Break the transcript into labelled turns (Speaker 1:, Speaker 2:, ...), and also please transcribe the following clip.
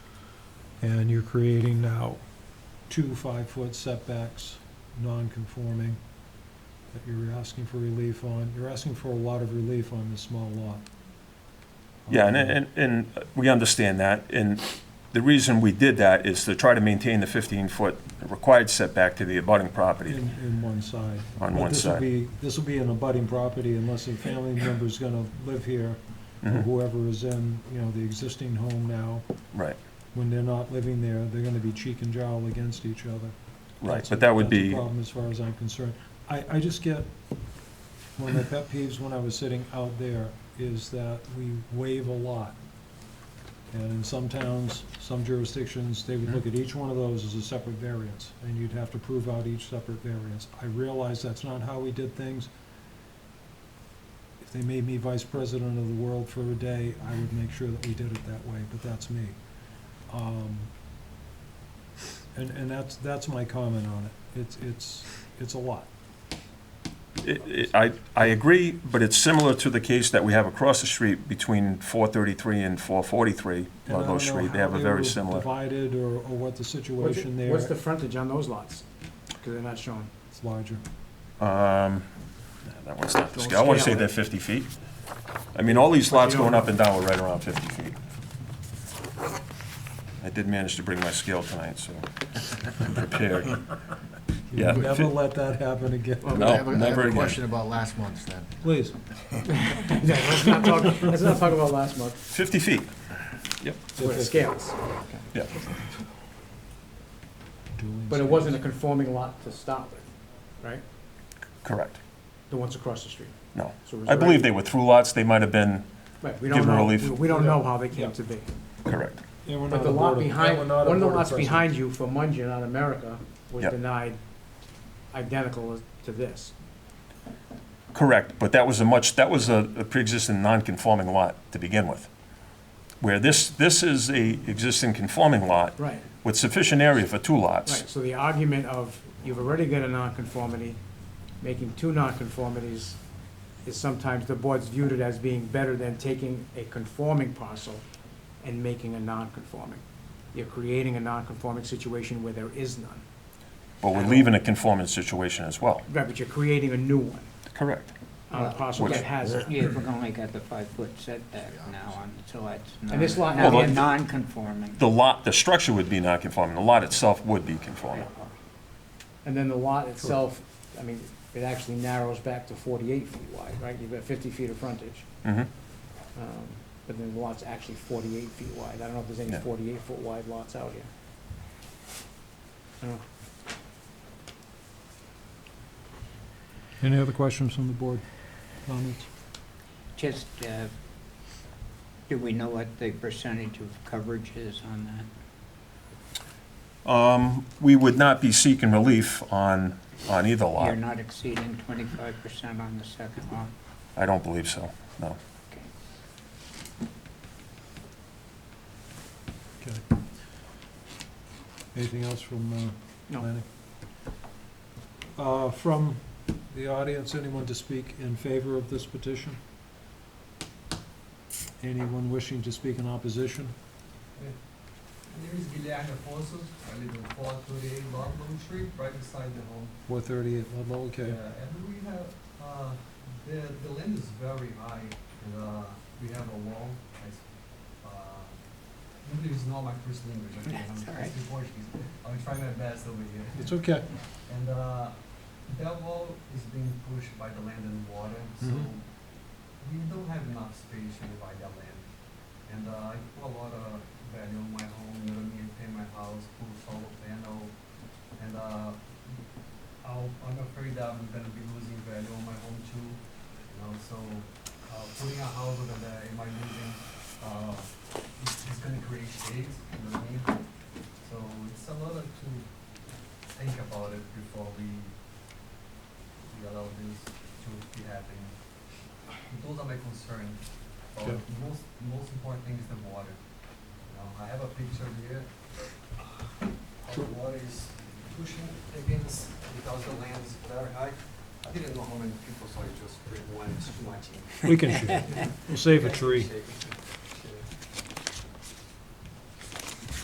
Speaker 1: And you're creating now two five-foot setbacks, non-conforming, that you're asking for relief on. You're asking for a lot of relief on this small lot.
Speaker 2: Yeah, and, and, and we understand that, and the reason we did that is to try to maintain the 15-foot required setback to the abutting property.
Speaker 1: In, in one side. But
Speaker 2: On one
Speaker 1: this will
Speaker 2: side.
Speaker 1: be- This will be an abutting property unless a family member's gonna live here, or
Speaker 2: Mhm,
Speaker 1: whoever is in, you know, the existing home now.
Speaker 2: Right,
Speaker 1: When they're not living there, they're gonna be cheek and jowl against each other.
Speaker 2: right,
Speaker 1: That's a-
Speaker 2: but that would
Speaker 1: that's a
Speaker 2: be,
Speaker 1: problem as far as I'm concerned. I, I just get, one of my pet peeves when I was sitting out there is that we waive a lot. And in some towns, some jurisdictions, they would look at each one of those as a separate variance, and you'd have to prove out each separate variance. I realize that's not how we did things. If they made me vice president of the world for a day, I would make sure that we did it that way, but that's me. Um, And, and that's, that's my comment on it. It's, it's, it's a lot.
Speaker 2: it- it- I, I agree, but it's similar to the case that we have across the street between 433 and 443,
Speaker 1: And I
Speaker 2: Ludlow
Speaker 1: don't know
Speaker 2: Street,
Speaker 1: how
Speaker 2: they have a
Speaker 1: were
Speaker 2: very similar.
Speaker 1: Divided or, or what the
Speaker 3: What's-
Speaker 1: situation there
Speaker 3: What's the
Speaker 1: is
Speaker 3: frontage on those lots? Because they're not shown.
Speaker 1: larger.
Speaker 2: Um, That one's not the
Speaker 3: Don't
Speaker 2: scale. I want to say
Speaker 3: scale
Speaker 2: they're
Speaker 3: it.
Speaker 2: 50 feet. I mean, all these lots
Speaker 3: you don't-
Speaker 2: going up and down were right around 50 feet. I did manage to bring my scale tonight, so I'm prepared.
Speaker 1: You
Speaker 2: Yeah.
Speaker 1: Never let that happen again.
Speaker 4: Well,
Speaker 2: No,
Speaker 4: I have a- I have
Speaker 2: never
Speaker 4: a
Speaker 2: again.
Speaker 4: question about last month's then.
Speaker 1: Please.
Speaker 3: Yeah, Let's not talk, let's not talk about last month,
Speaker 2: 50 feet.
Speaker 3: with the scales.
Speaker 2: Yeah,
Speaker 1: Dueling
Speaker 3: But it
Speaker 1: scales.
Speaker 3: wasn't a conforming lot to start with, right?
Speaker 2: correct.
Speaker 3: The ones across the street.
Speaker 2: No.
Speaker 3: So it was
Speaker 2: I believe
Speaker 3: already-
Speaker 2: they were through lots. They might have been,
Speaker 3: Right, we
Speaker 2: give
Speaker 3: don't
Speaker 2: them
Speaker 3: know,
Speaker 2: relief.
Speaker 3: we- we don't know how they
Speaker 1: Yeah.
Speaker 3: came to be.
Speaker 2: correct.
Speaker 1: And we're
Speaker 3: But
Speaker 1: not a
Speaker 3: the lot
Speaker 1: board of-
Speaker 3: behind,
Speaker 1: we're
Speaker 3: one
Speaker 1: not a
Speaker 3: of the
Speaker 1: board
Speaker 3: lots
Speaker 1: president.
Speaker 3: behind you for Mungian on America was
Speaker 2: Yeah.
Speaker 3: denied identical as- to this.
Speaker 2: Correct, but that was a much, that was a a pre-existing non-conforming lot to begin with. Where this, this is a existing conforming lot
Speaker 3: Right.
Speaker 2: with sufficient area for two
Speaker 3: Right,
Speaker 2: lots.
Speaker 3: so the argument of, you've already got a nonconformity, making two nonconformities is sometimes the board's viewed it as being better than taking a conforming parcel and making a nonconforming. You're creating a nonconforming situation where there is none.
Speaker 2: But we're leaving a conforming situation as well.
Speaker 3: Right, but you're creating a new one
Speaker 2: Correct.
Speaker 3: on a parcel
Speaker 2: Which-
Speaker 3: that has it.
Speaker 5: Yeah, we're only got the five-foot setback now, and so it's not.
Speaker 3: And this lot
Speaker 5: now
Speaker 2: now-
Speaker 5: they're Non-conforming.
Speaker 2: The lot, the structure would be non-conforming, the lot itself would be conforming.
Speaker 3: And then the lot itself, I mean, it actually narrows back to forty-eight feet wide, right? You've got fifty feet of frontage.
Speaker 2: Mhm.
Speaker 3: Um, But then the lot's actually 48 feet wide. I don't know if there's any
Speaker 2: Yeah.
Speaker 3: 48-foot wide lots out here. I don't know.
Speaker 1: Any other questions from the board? Comments?
Speaker 5: Just, uh, do we know what the percentage of coverage is on that?
Speaker 2: Um, We would not be seeking relief on, on either
Speaker 5: You're
Speaker 2: lot.
Speaker 5: not exceeding twenty-five percent on the second lot?
Speaker 2: I don't believe so, no.
Speaker 5: Okay.
Speaker 1: Okay. Anything else from, uh,
Speaker 3: No.
Speaker 1: planning? Uh, from the audience, anyone to speak in favor of this petition? Anyone wishing to speak in opposition?
Speaker 6: My name is Guilherme Afonso. I live in 438 Ludlow Street, right beside the home.
Speaker 1: Four thirty-eight Ludlow, okay.
Speaker 6: Yeah, and we have, uh, the, the land is very high. and, uh, we have a wall. I, uh, English is not my first language. okay? I'm
Speaker 5: That's all right.
Speaker 6: speaking Portuguese. I'll try my best over here.
Speaker 1: It's okay.
Speaker 6: And uh, that wall is being pushed by the land and water, so
Speaker 1: Mhm.
Speaker 6: we don't have enough space to divide that land. And uh, I put a lot of value on my home, you know what I mean? Pay my house, put solar panel, and uh, I'll, I'm afraid that I'm gonna be losing value on my home too. You know, so uh, putting a house over there, am I losing? Uh, it's, it's gonna create shades, you know what I mean? So it's a lot of to think about it before we, we allow this to be happening. Those are my concerns. But
Speaker 1: Yeah.
Speaker 6: most, most important thing is the water. You know, I have a picture here. How the water is pushing against, because the land is very high. I didn't know how many people, so I just bring one, it's too much.
Speaker 1: We can shoot. We'll save a tree.